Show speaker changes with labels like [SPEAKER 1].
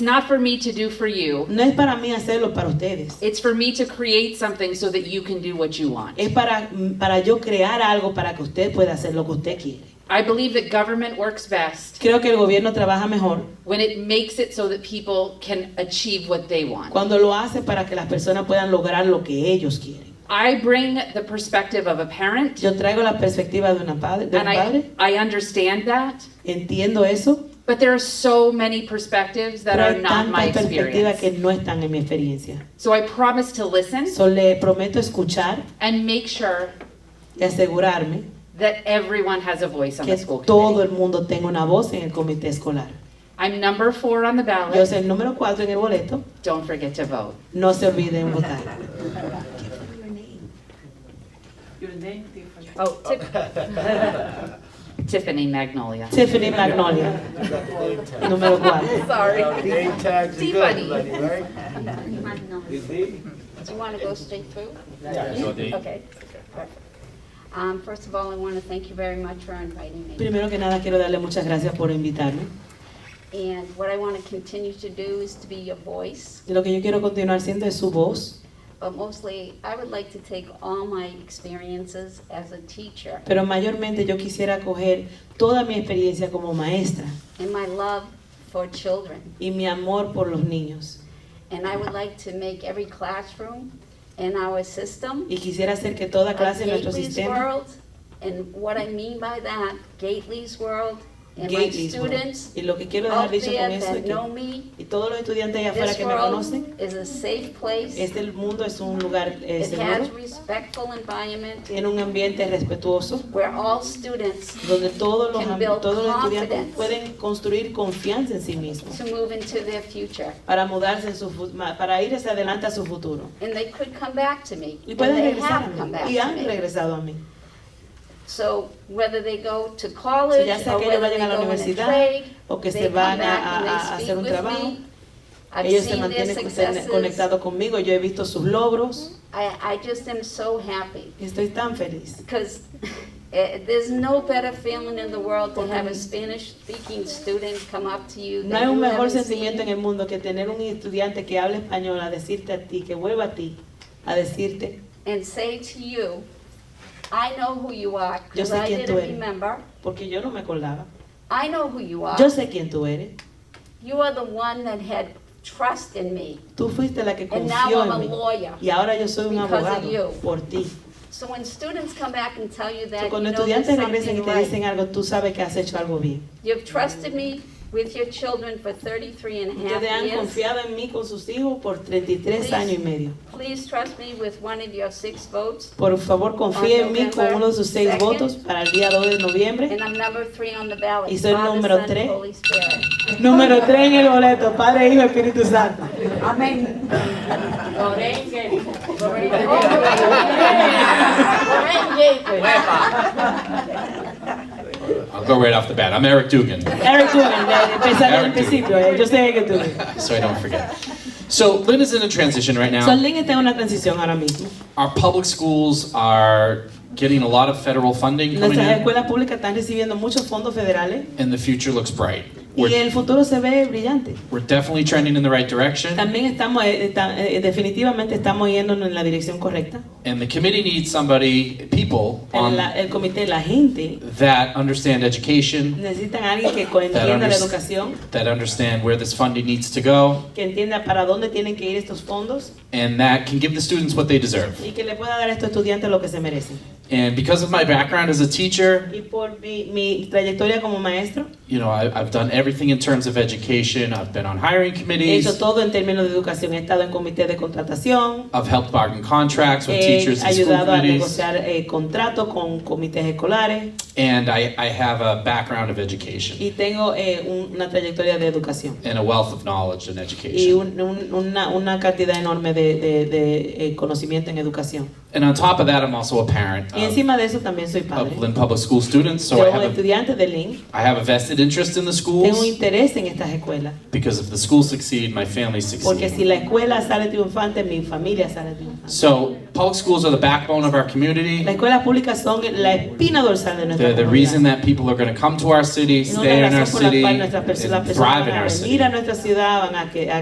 [SPEAKER 1] It's not for me to do for you.
[SPEAKER 2] No es para mí hacerlo para ustedes.
[SPEAKER 1] It's for me to create something so that you can do what you want.
[SPEAKER 2] Es para, para yo crear algo para que usted pueda hacer lo que usted quiere.
[SPEAKER 1] I believe that government works best
[SPEAKER 2] Creo que el gobierno trabaja mejor
[SPEAKER 1] when it makes it so that people can achieve what they want.
[SPEAKER 2] cuando lo hace para que las personas puedan lograr lo que ellos quieren.
[SPEAKER 1] I bring the perspective of a parent
[SPEAKER 2] Yo traigo la perspectiva de, una padre, de
[SPEAKER 1] and
[SPEAKER 2] un
[SPEAKER 1] I,
[SPEAKER 2] padre,
[SPEAKER 1] I understand that,
[SPEAKER 2] entiendo eso,
[SPEAKER 1] but there are so many perspectives that
[SPEAKER 2] pero
[SPEAKER 1] are
[SPEAKER 2] hay
[SPEAKER 1] not my
[SPEAKER 2] tantas perspectivas que
[SPEAKER 1] experience.
[SPEAKER 2] no están en mi experiencia.
[SPEAKER 1] So I promise to listen
[SPEAKER 2] So, le prometo escuchar
[SPEAKER 1] and make sure
[SPEAKER 2] y asegurarme
[SPEAKER 1] that everyone has a voice on
[SPEAKER 2] que
[SPEAKER 1] the school
[SPEAKER 2] todo
[SPEAKER 1] committee.
[SPEAKER 2] el mundo tenga una voz en el comité escolar.
[SPEAKER 1] I'm number four on the
[SPEAKER 2] Yo
[SPEAKER 1] ballot.
[SPEAKER 2] soy el número cuatro en el boleto,
[SPEAKER 1] Don't forget to vote.
[SPEAKER 2] no se olviden votar.
[SPEAKER 1] Oh, Tiff- Tiffany Magnolia.
[SPEAKER 2] Tiffany Magnolia, número cuatro.
[SPEAKER 3] Sorry. Name tags are good,
[SPEAKER 1] T-Buddy.
[SPEAKER 3] everybody, right?
[SPEAKER 4] Do
[SPEAKER 3] Is he?
[SPEAKER 4] you want to go straight through?
[SPEAKER 3] Yeah.
[SPEAKER 4] Okay. perfect. Um, First of all, I want to thank you very much for inviting me.
[SPEAKER 2] Primero que nada quiero darle muchas gracias por invitarme.
[SPEAKER 4] And what I want to continue to do is to be your voice,
[SPEAKER 2] Y Lo que yo quiero continuar siendo es su voz,
[SPEAKER 4] but mostly, I would like to take all my experiences as a teacher
[SPEAKER 2] pero mayormente yo quisiera coger toda mi experiencia como maestra
[SPEAKER 4] and my love for children.
[SPEAKER 2] y mi amor por los niños.
[SPEAKER 4] And I would like to make every classroom and our system
[SPEAKER 2] Y quisiera hacer que toda
[SPEAKER 4] a
[SPEAKER 2] clase de nuestro
[SPEAKER 4] Gately's
[SPEAKER 2] sistema,
[SPEAKER 4] World. And what I mean by that, Gately's World, and my
[SPEAKER 2] Gately's World.
[SPEAKER 4] students
[SPEAKER 2] Y lo que quiero dejar
[SPEAKER 4] out
[SPEAKER 2] dicho con
[SPEAKER 4] there
[SPEAKER 2] eso es
[SPEAKER 4] that
[SPEAKER 2] que
[SPEAKER 4] know me,
[SPEAKER 2] y todos los estudiantes allá afuera
[SPEAKER 4] This
[SPEAKER 2] que me conocen,
[SPEAKER 4] world is a safe place.
[SPEAKER 2] este mundo es un lugar eh,
[SPEAKER 4] It has
[SPEAKER 2] seguro,
[SPEAKER 4] respectful environment
[SPEAKER 2] tiene un ambiente respetuoso,
[SPEAKER 4] where all students
[SPEAKER 2] donde todos los,
[SPEAKER 4] Can
[SPEAKER 2] am-
[SPEAKER 4] build
[SPEAKER 2] todos los estudiantes
[SPEAKER 4] confidence.
[SPEAKER 2] pueden construir confianza en sí mismos.
[SPEAKER 4] to move into their future.
[SPEAKER 2] para mudarse en su fu- ma- para ir hacia adelante a su futuro.
[SPEAKER 4] And they could come back to me.
[SPEAKER 2] Y
[SPEAKER 4] And
[SPEAKER 2] pueden
[SPEAKER 4] they
[SPEAKER 2] regresar a
[SPEAKER 4] have come
[SPEAKER 2] mí.
[SPEAKER 4] back
[SPEAKER 2] Y han
[SPEAKER 4] to me.
[SPEAKER 2] regresado a mí.
[SPEAKER 4] So whether they go to
[SPEAKER 2] So
[SPEAKER 4] college
[SPEAKER 2] ya sea
[SPEAKER 4] or
[SPEAKER 2] que ellos
[SPEAKER 4] whether they
[SPEAKER 2] vayan a la
[SPEAKER 4] go in a
[SPEAKER 2] universidad
[SPEAKER 4] trade,
[SPEAKER 2] o que
[SPEAKER 4] they
[SPEAKER 2] se
[SPEAKER 4] come
[SPEAKER 2] van a,
[SPEAKER 4] back
[SPEAKER 2] a-
[SPEAKER 4] and
[SPEAKER 2] a
[SPEAKER 4] they
[SPEAKER 2] hacer
[SPEAKER 4] speak
[SPEAKER 2] un
[SPEAKER 4] with
[SPEAKER 2] trabajo.
[SPEAKER 4] me. I've
[SPEAKER 2] Ellos se
[SPEAKER 4] seen their
[SPEAKER 2] mantienen conse-
[SPEAKER 4] successes.
[SPEAKER 2] conectados conmigo. Yo he visto sus logros
[SPEAKER 4] I, I just am so happy
[SPEAKER 2] y estoy tan feliz.
[SPEAKER 4] because eh, there's no better feeling in the world to have a
[SPEAKER 2] Porque-
[SPEAKER 4] Spanish-speaking student come up to you
[SPEAKER 2] No
[SPEAKER 4] that
[SPEAKER 2] hay un
[SPEAKER 4] you
[SPEAKER 2] mejor
[SPEAKER 4] haven't
[SPEAKER 2] sentimiento
[SPEAKER 4] seen.
[SPEAKER 2] en el mundo que tener un estudiante que habla español a decirte a ti, que vuelva a ti, a decirte,
[SPEAKER 4] and say to you, I know who you are,
[SPEAKER 2] Yo
[SPEAKER 4] because
[SPEAKER 2] sé
[SPEAKER 4] I
[SPEAKER 2] quién tú
[SPEAKER 4] didn't
[SPEAKER 2] eres.
[SPEAKER 4] remember.
[SPEAKER 2] porque yo no me acordaba.
[SPEAKER 4] I know who you are.
[SPEAKER 2] Yo sé quién tú eres.
[SPEAKER 4] You are the one that had trust in me
[SPEAKER 2] Tú fuiste la que
[SPEAKER 4] And now
[SPEAKER 2] confió
[SPEAKER 4] I'm a
[SPEAKER 2] en mí.
[SPEAKER 4] lawyer
[SPEAKER 2] Y ahora yo soy un
[SPEAKER 4] because of
[SPEAKER 2] abogado
[SPEAKER 4] you.
[SPEAKER 2] por ti.
[SPEAKER 4] So when students come back and tell you
[SPEAKER 2] So,
[SPEAKER 4] that, you
[SPEAKER 2] cuando
[SPEAKER 4] know there's
[SPEAKER 2] estudiantes regresen y
[SPEAKER 4] something
[SPEAKER 2] te
[SPEAKER 4] right.
[SPEAKER 2] dicen algo, tú sabes que has hecho algo bien.
[SPEAKER 4] You've trusted me with your children for 33 and a half
[SPEAKER 2] Ustedes han
[SPEAKER 4] years.
[SPEAKER 2] confiado en mí con sus hijos por 33
[SPEAKER 4] Please.
[SPEAKER 2] años y medio.
[SPEAKER 4] Please trust me with one of your six votes,
[SPEAKER 2] Por favor, confíe en mí con uno de sus seis
[SPEAKER 4] Second.
[SPEAKER 2] votos para el día 2 de noviembre.
[SPEAKER 4] and I'm number three on the ballot.
[SPEAKER 2] Y soy
[SPEAKER 4] Father,
[SPEAKER 2] número
[SPEAKER 4] Son,
[SPEAKER 2] tres.
[SPEAKER 4] Holy Spirit.
[SPEAKER 2] Número 3 en el boleto, Padre, Hijo, Espíritu Santo.
[SPEAKER 5] I'll go right off the bat. I'm Eric Dugan,
[SPEAKER 2] Eric Dugan, de- empezando en el
[SPEAKER 5] Eric Dugan.
[SPEAKER 2] principio, eh, yo sé que tú.
[SPEAKER 5] so I don't forget. So Lynn is in a transition right
[SPEAKER 2] So,
[SPEAKER 5] now.
[SPEAKER 2] Lynn está en una transición ahora mismo.
[SPEAKER 5] Our public schools are getting a lot of federal funding coming
[SPEAKER 2] Nuestras
[SPEAKER 5] in,
[SPEAKER 2] escuelas públicas están recibiendo muchos fondos federales
[SPEAKER 5] and the future looks bright.
[SPEAKER 2] y
[SPEAKER 5] We're,
[SPEAKER 2] el futuro se ve brillante.
[SPEAKER 5] we're definitely trending in the right direction,
[SPEAKER 2] También estamos, eh, está- eh, definitivamente estamos yéndonos en la dirección correcta.
[SPEAKER 5] and the committee needs somebody, people,
[SPEAKER 2] El,
[SPEAKER 5] on
[SPEAKER 2] la- el comité, la gente,
[SPEAKER 5] that understand education,
[SPEAKER 2] necesitan a alguien que co-
[SPEAKER 5] that,
[SPEAKER 2] entienda la
[SPEAKER 5] unders-
[SPEAKER 2] educación,
[SPEAKER 5] that understand where this funding needs to go,
[SPEAKER 2] que entienda para dónde tienen que ir estos fondos
[SPEAKER 5] and that can give the students what they deserve.
[SPEAKER 2] y que le pueda dar a estos estudiantes lo que se merecen.
[SPEAKER 5] And because of my background as a teacher,
[SPEAKER 2] Y por mi, mi trayectoria como maestro,
[SPEAKER 5] you know, I, I've done everything in terms of education. I've been on hiring
[SPEAKER 2] he
[SPEAKER 5] committees.
[SPEAKER 2] hecho todo en términos de educación. He estado en comité de contratación,
[SPEAKER 5] I've helped bargain contracts with
[SPEAKER 2] he
[SPEAKER 5] teachers and school
[SPEAKER 2] ayudado Eh, a
[SPEAKER 5] committees,
[SPEAKER 2] negociar eh, contratos con comités escolares
[SPEAKER 5] and I, I have a background of education
[SPEAKER 2] y tengo eh, un- una trayectoria de educación.
[SPEAKER 5] and a wealth of knowledge in
[SPEAKER 2] Y
[SPEAKER 5] education.
[SPEAKER 2] un- un- una, una cantidad enorme de, de- de, eh, conocimiento en educación.
[SPEAKER 5] And on top of that, I'm also a parent
[SPEAKER 2] Y
[SPEAKER 5] of, ah, pues
[SPEAKER 2] encima de eso también soy padre.
[SPEAKER 5] of Lynn Public School students, so I
[SPEAKER 2] Yo soy
[SPEAKER 5] have a,
[SPEAKER 2] estudiante de Lynn
[SPEAKER 5] I have a vested interest in the
[SPEAKER 2] Tengo un
[SPEAKER 5] schools
[SPEAKER 2] interés en estas escuelas,
[SPEAKER 5] because if the schools succeed, my family
[SPEAKER 2] porque si
[SPEAKER 5] succeeds.
[SPEAKER 2] la escuela sale triunfante, mi familia sale triunfante.
[SPEAKER 5] So public schools are the backbone of our
[SPEAKER 2] Las
[SPEAKER 5] community.
[SPEAKER 2] escuelas públicas son la espina dorsal de nuestra
[SPEAKER 5] They're the reason
[SPEAKER 2] comunidad.
[SPEAKER 5] that people are going to come to our
[SPEAKER 2] No
[SPEAKER 5] city,
[SPEAKER 2] es la
[SPEAKER 5] stay in our
[SPEAKER 2] razón por la
[SPEAKER 5] city,
[SPEAKER 2] cual
[SPEAKER 5] and
[SPEAKER 2] nuestras perso- las personas
[SPEAKER 5] thrive in
[SPEAKER 2] van a
[SPEAKER 5] our
[SPEAKER 2] venir
[SPEAKER 5] city.
[SPEAKER 2] a nuestra ciudad, van a que- a